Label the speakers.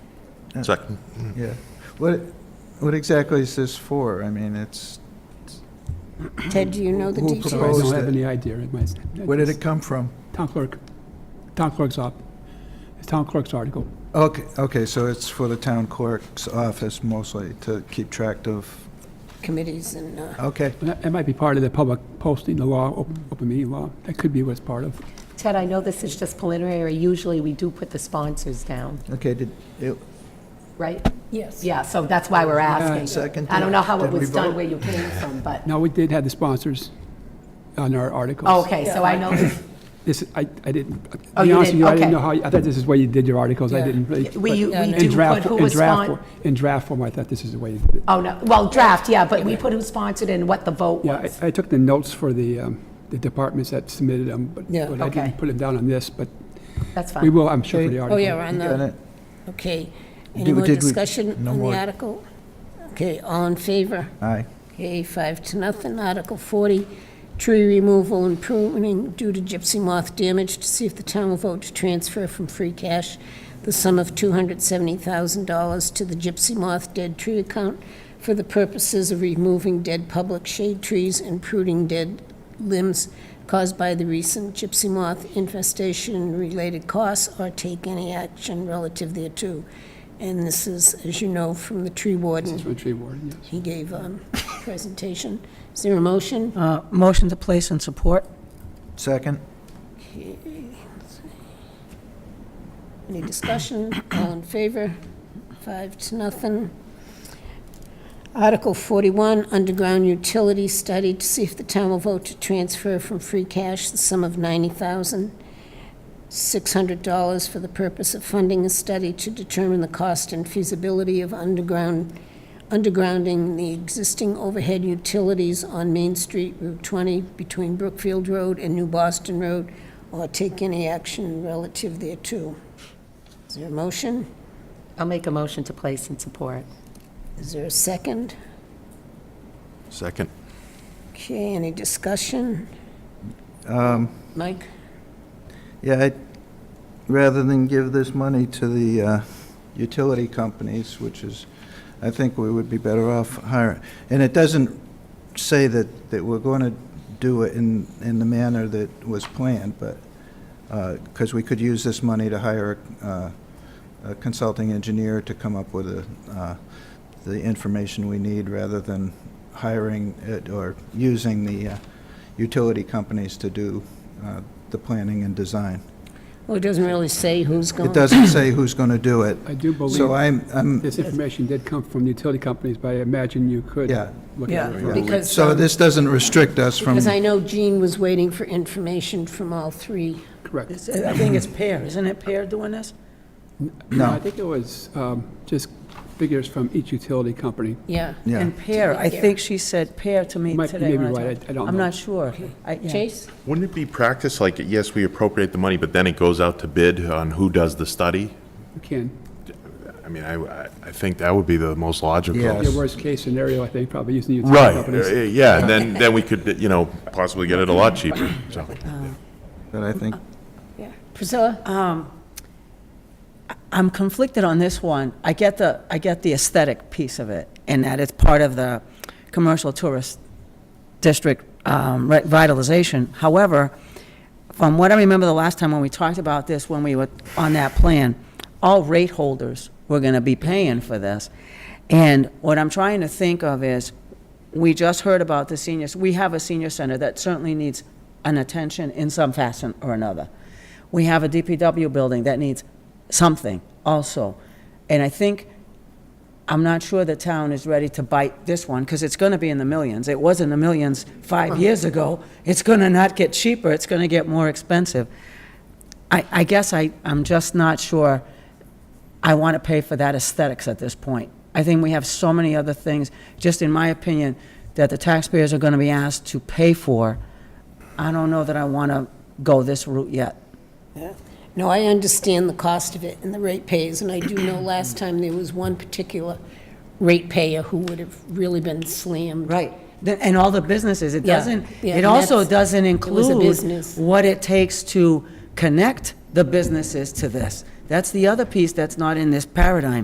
Speaker 1: Second.
Speaker 2: Yeah. What, what exactly is this for? I mean, it's,
Speaker 3: Ted, do you know the
Speaker 2: Who
Speaker 3: details?
Speaker 2: proposed
Speaker 4: So I don't
Speaker 2: it?
Speaker 4: have any idea. It might-
Speaker 2: where did it come from?
Speaker 4: Town clerk, town clerk's op, it's town clerk's article.
Speaker 2: Okay, okay, so it's for the town clerk's office mostly to keep track of,
Speaker 3: Committees and, uh,
Speaker 2: okay.
Speaker 4: And That that might be part of the public posting, the law, op- open meeting law. That could be what it's part of.
Speaker 5: Ted, I know this is just preliminary. Usually, we do put the sponsors down,
Speaker 2: Okay, did, it-
Speaker 5: right?
Speaker 3: yes.
Speaker 5: Yeah, so that's why we're asking.
Speaker 2: second,
Speaker 5: I don't know how it
Speaker 2: did we
Speaker 5: was done
Speaker 2: vote?
Speaker 5: where you came from, but,
Speaker 4: Now, we did have the sponsors on our articles.
Speaker 5: Oh, okay, so I know,
Speaker 4: This, I, I didn't, to
Speaker 5: Oh,
Speaker 4: be
Speaker 5: you
Speaker 4: honest with
Speaker 5: didn't-
Speaker 4: you, I didn't
Speaker 5: okay.
Speaker 4: know how, I thought this is where you did your articles. I
Speaker 3: Yeah.
Speaker 4: didn't really. but
Speaker 5: we,
Speaker 3: Yeah,
Speaker 5: we
Speaker 3: no.
Speaker 4: in
Speaker 5: do put
Speaker 4: draft-
Speaker 5: who
Speaker 4: in
Speaker 5: was
Speaker 4: draft
Speaker 5: sponsored.
Speaker 4: for- In draft form, I thought this is the way you did it.
Speaker 5: Oh, no, well, draft, yeah, but we put who sponsored and what the vote
Speaker 4: Yeah,
Speaker 5: was.
Speaker 4: I, I took the notes for the, um, the departments that submitted them, but
Speaker 3: Yeah.
Speaker 4: but I
Speaker 5: Okay.
Speaker 4: didn't put them down on this, but
Speaker 5: That's
Speaker 4: we
Speaker 5: fine.
Speaker 4: will, I'm sure, for
Speaker 2: Okay.
Speaker 4: the
Speaker 2: Oh,
Speaker 3: Oh,
Speaker 4: article.
Speaker 3: yeah, we're on
Speaker 2: got
Speaker 3: the,
Speaker 2: it?
Speaker 3: okay. Any
Speaker 2: Did-
Speaker 3: more
Speaker 2: did we-
Speaker 3: discussion
Speaker 2: no
Speaker 3: on
Speaker 2: more.
Speaker 3: the article? Okay, all in favor?
Speaker 2: Aye.
Speaker 3: Okay, five to nothing. Article 40, tree removal and pruning due to gypsy moth damage, to see if the town will vote to transfer from free cash the sum of $270,000 to the gypsy moth dead tree account for the purposes of removing dead public shade trees and pruning dead limbs caused by the recent gypsy moth infestation and related costs, or take any action relative thereto. And this is, as you know, from the tree warden.
Speaker 4: It's from the tree warden, yes.
Speaker 3: He gave a presentation. Is there a motion?
Speaker 6: Uh, Motion to place and support?
Speaker 2: Second?
Speaker 3: Any discussion? All in favor? Five to nothing. Article 41, underground utility study to see if the town will vote to transfer from free cash the sum of $90,600 for the purpose of funding a study to determine the cost and feasibility of underground, undergrounding the existing overhead utilities on Main Street, Route 20, between Brookfield Road and New Boston Road, or take any action relative thereto. Is there a motion?
Speaker 5: I'll make a motion to place and support.
Speaker 3: Is there a second?
Speaker 1: Second.
Speaker 3: Okay, any discussion?
Speaker 2: Um,
Speaker 3: Mike?
Speaker 2: Yeah, I, rather than give this money to the uh, utility companies, which is, I think we would be better off hiring. And it doesn't say that, that we're going to do it in, in the manner that was planned, but, because we could use this money to hire uh, a consulting engineer to come up with the, uh, the information we need, rather than hiring it or using the uh, utility companies to do uh, the planning and design.
Speaker 3: Well, it doesn't really say who's going.
Speaker 2: It doesn't say who's going to do it.
Speaker 4: I do
Speaker 2: So
Speaker 4: believe
Speaker 2: I'm, I'm,
Speaker 4: this information did come from the utility companies, but I imagine you could
Speaker 2: Yeah.
Speaker 4: look
Speaker 6: Yeah.
Speaker 4: at it.
Speaker 3: Because,
Speaker 2: so
Speaker 3: um,
Speaker 2: this doesn't restrict us from,
Speaker 3: Because I know Jean was waiting for information from all three.
Speaker 4: Correct.
Speaker 6: It's- I think it's Pear, isn't it Pear doing this?
Speaker 2: No.
Speaker 4: I think it was um, just figures from each utility company.
Speaker 3: Yeah.
Speaker 2: yeah.
Speaker 6: And Pear, I think she said Pear to me
Speaker 4: You might- you may
Speaker 6: today. when
Speaker 4: be
Speaker 6: I
Speaker 4: right,
Speaker 6: talked.
Speaker 4: I- I don't
Speaker 6: I'm
Speaker 4: know.
Speaker 6: not sure. I- yeah.
Speaker 3: Chase?
Speaker 1: Wouldn't it be practice, like, yes, we appropriate the money, but then it goes out to bid on who does the study?
Speaker 4: You can,
Speaker 1: I mean, I, I- I think that would be the most logical.
Speaker 2: Yeah.
Speaker 4: your worst-case scenario, I think, probably using the utility
Speaker 1: Right,
Speaker 4: companies.
Speaker 1: Uh, yeah, and then, then we could, you know, possibly get it a lot cheaper, so.
Speaker 2: But I think,
Speaker 3: Priscilla?
Speaker 6: I'm conflicted on this one. I get the, I get the aesthetic piece of it, and that it's part of the commercial tourist district um, revitalization. However, from what I remember the last time when we talked about this, when we were on that plan, all rate holders were going to be paying for this. And what I'm trying to think of is, we just heard about the seniors, we have a senior center that certainly needs an attention in some fashion or another. We have a DPW building that needs something also. And I think I'm not sure the town is ready to bite this one, because it's going to be in the millions. It was in the millions five years ago. It's going to not get cheaper, it's going to get more expensive. I, I guess I, I'm just not sure I want to pay for that aesthetics at this point. I think we have so many other things, just in my opinion, that the taxpayers are going to be asked to pay for. I don't know that I want to go this route yet.
Speaker 3: No, I understand the cost of it and the rate pays, and I do know last time there was one particular rate payer who would have really been slammed.
Speaker 6: Right. Then- And all the businesses, it
Speaker 3: Yeah,
Speaker 6: doesn't,
Speaker 3: yeah,
Speaker 6: it
Speaker 3: and
Speaker 6: also
Speaker 3: that's-
Speaker 6: doesn't
Speaker 3: it was a
Speaker 6: include
Speaker 3: business.
Speaker 6: what it takes to connect the businesses to this. That's the other piece that's not in this paradigm.